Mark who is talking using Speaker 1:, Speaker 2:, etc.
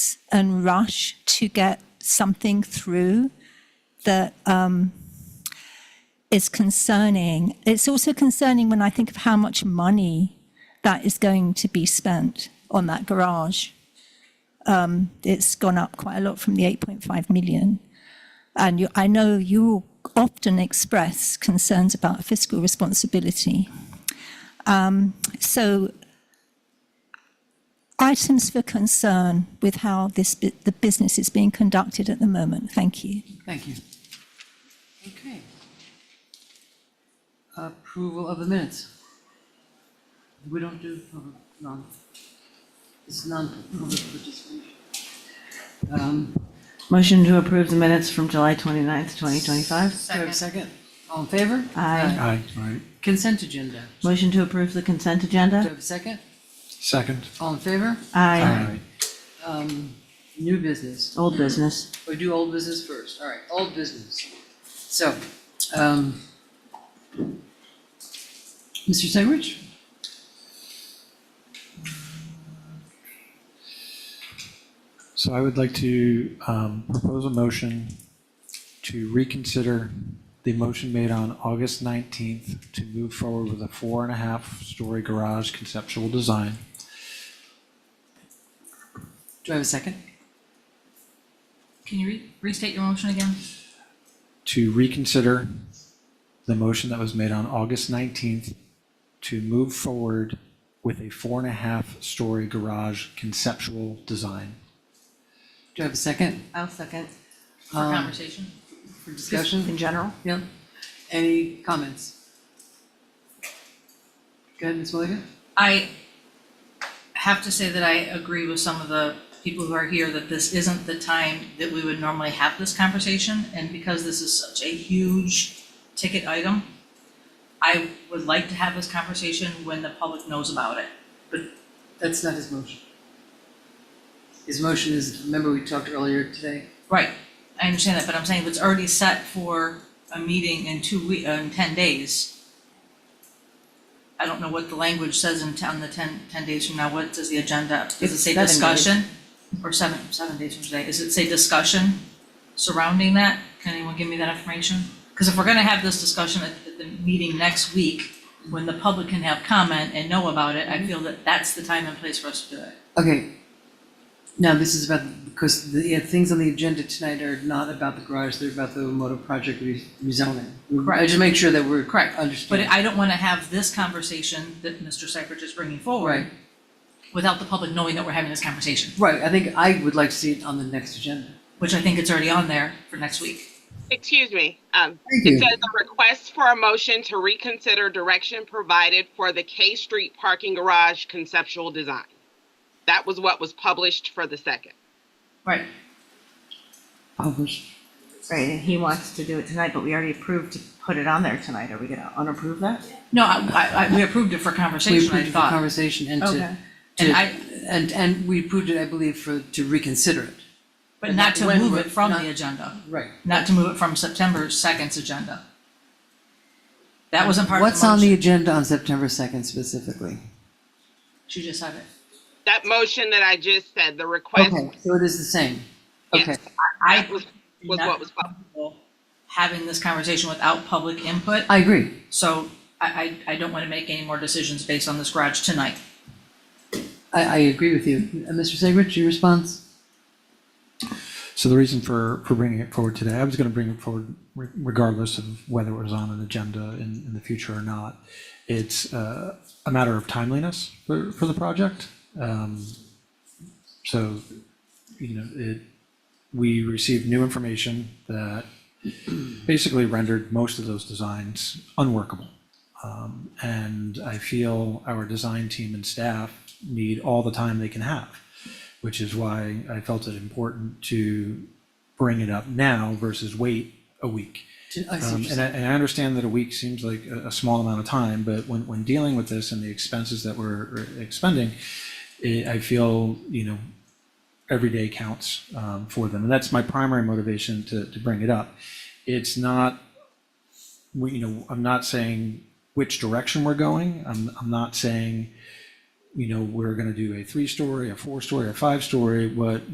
Speaker 1: and rush to get something through that um, is concerning. It's also concerning when I think of how much money that is going to be spent on that garage. Um, It's gone up quite a lot from the 8.5 million. And you- I know you often express concerns about fiscal responsibility. Um, So items for concern with how this, bu- the business is being conducted at the moment. Thank you.
Speaker 2: Thank you. Okay. Approval of the minutes. We don't do public, non, it's non-public participation. Um,
Speaker 3: Motion to approve the minutes from July 29th, 2025.
Speaker 2: do I have a second? All in favor?
Speaker 3: Aye.
Speaker 4: Aye. Aye.
Speaker 2: Consent agenda.
Speaker 3: Motion to approve the consent
Speaker 2: Do I
Speaker 3: agenda.
Speaker 2: have a second?
Speaker 4: Second.
Speaker 2: All in favor?
Speaker 3: Aye.
Speaker 2: Um, new business.
Speaker 3: Old business.
Speaker 2: We do old business first. All right, old business. So, um, Mr. Segridge?
Speaker 4: So I would like to um, propose a motion to reconsider the motion made on August 19th to move forward with a four and a half story garage conceptual design.
Speaker 2: Do I have a second?
Speaker 5: Can you re- restate your motion again?
Speaker 4: to reconsider the motion that was made on August 19th to move forward with a four and a half story garage conceptual design.
Speaker 2: Do I have a second
Speaker 3: I'll second.
Speaker 5: For
Speaker 2: Um,
Speaker 5: conversation?
Speaker 2: for discussion?
Speaker 3: In general?
Speaker 2: Yeah. Any comments? Go ahead, Ms. Mulligan.
Speaker 5: I have to say that I agree with some of the people who are here that this isn't the time that we would normally have this conversation. And because this is such a huge ticket item, I would like to have this conversation when the public knows about it.
Speaker 2: That's not his motion. His motion is, remember we talked earlier today?
Speaker 5: Right, I understand that, but I'm saying if it's already set for a meeting in two we, uh, in ten days. I don't know what the language says in ten, the ten, ten days from now, what does the agenda, does it
Speaker 3: It's
Speaker 5: say
Speaker 3: seven days.
Speaker 5: discussion? Or seven, seven days from today, does it say discussion surrounding that? Can anyone give me that information? Cause if we're gonna have this discussion at, at the meeting next week, when the public can have comment and know about it,
Speaker 3: Mm-hmm.
Speaker 5: I feel that that's the time and place for us to do it.
Speaker 2: Okay. Now, this is about, because the, yeah, things on the agenda tonight are not about the garage, they're about the motor project re- rezoning. I just make sure that we're correct,
Speaker 5: But
Speaker 2: understand.
Speaker 5: I don't wanna have this conversation that Mr. Seifert is bringing
Speaker 2: Right,
Speaker 5: forward without the public knowing that we're having this conversation,
Speaker 2: right, I think I would like to see it on the next agenda.
Speaker 5: which I think it's already on there for next week.
Speaker 6: Excuse me. Um,
Speaker 2: Thank you.
Speaker 6: it says a request for a motion to reconsider direction provided for the K Street parking garage conceptual design. That was what was published for the second.
Speaker 5: Right.
Speaker 2: Published.
Speaker 3: Right, and he wants to do it tonight, but we already approved to put it on there tonight. Are we gonna unapprove that?
Speaker 5: No, I, I- I, we approved it for
Speaker 2: We
Speaker 5: conversation, I
Speaker 2: approved it for
Speaker 5: thought.
Speaker 2: conversation and to,
Speaker 3: Okay.
Speaker 2: to-
Speaker 5: And I-
Speaker 2: and, and we approved it, I believe, for, to reconsider it.
Speaker 5: But not to
Speaker 2: When
Speaker 5: move
Speaker 2: we're-
Speaker 5: it from
Speaker 2: not-
Speaker 5: the agenda,
Speaker 2: Right.
Speaker 5: not to move it from September second's agenda. That wasn't part of
Speaker 2: What's
Speaker 5: the
Speaker 2: on the
Speaker 5: motion.
Speaker 2: agenda on September 2nd specifically?
Speaker 5: She just said it.
Speaker 6: That motion that I just said, the request,
Speaker 2: Okay, so it is the same. Okay,
Speaker 6: yes,
Speaker 5: I
Speaker 6: was-
Speaker 5: did
Speaker 6: was
Speaker 5: not
Speaker 6: what was
Speaker 5: feel comfortable Having this conversation without public input,
Speaker 2: I agree.
Speaker 5: so I, I, I don't wanna make any more decisions based on this garage tonight.
Speaker 2: I, I agree with you. Uh, Mr. Segrich, your response?
Speaker 4: So the reason for, for bringing it forward today, I was going to bring it forward re- regardless of whether it was on an agenda in, in the future or not. It's uh, a matter of timeliness for, for the project. Um, So, you know, it, we received new information that basically rendered most of those designs unworkable. Um, And I feel our design team and staff need all the time they can have, which is why I felt it important to bring it up now versus wait a week.
Speaker 2: I see what
Speaker 4: Um,
Speaker 2: you're
Speaker 4: And I, and I understand that a week seems like a, a small amount of time, but when, when dealing with this and the expenses that we're expending, eh, I feel, you know, every day counts um, for them. And that's my primary motivation to, to bring it up. It's not, we, you know, I'm not saying which direction we're going. I'm, I'm not saying, you know, we're going to do a three-story, a four-story, a five-story. What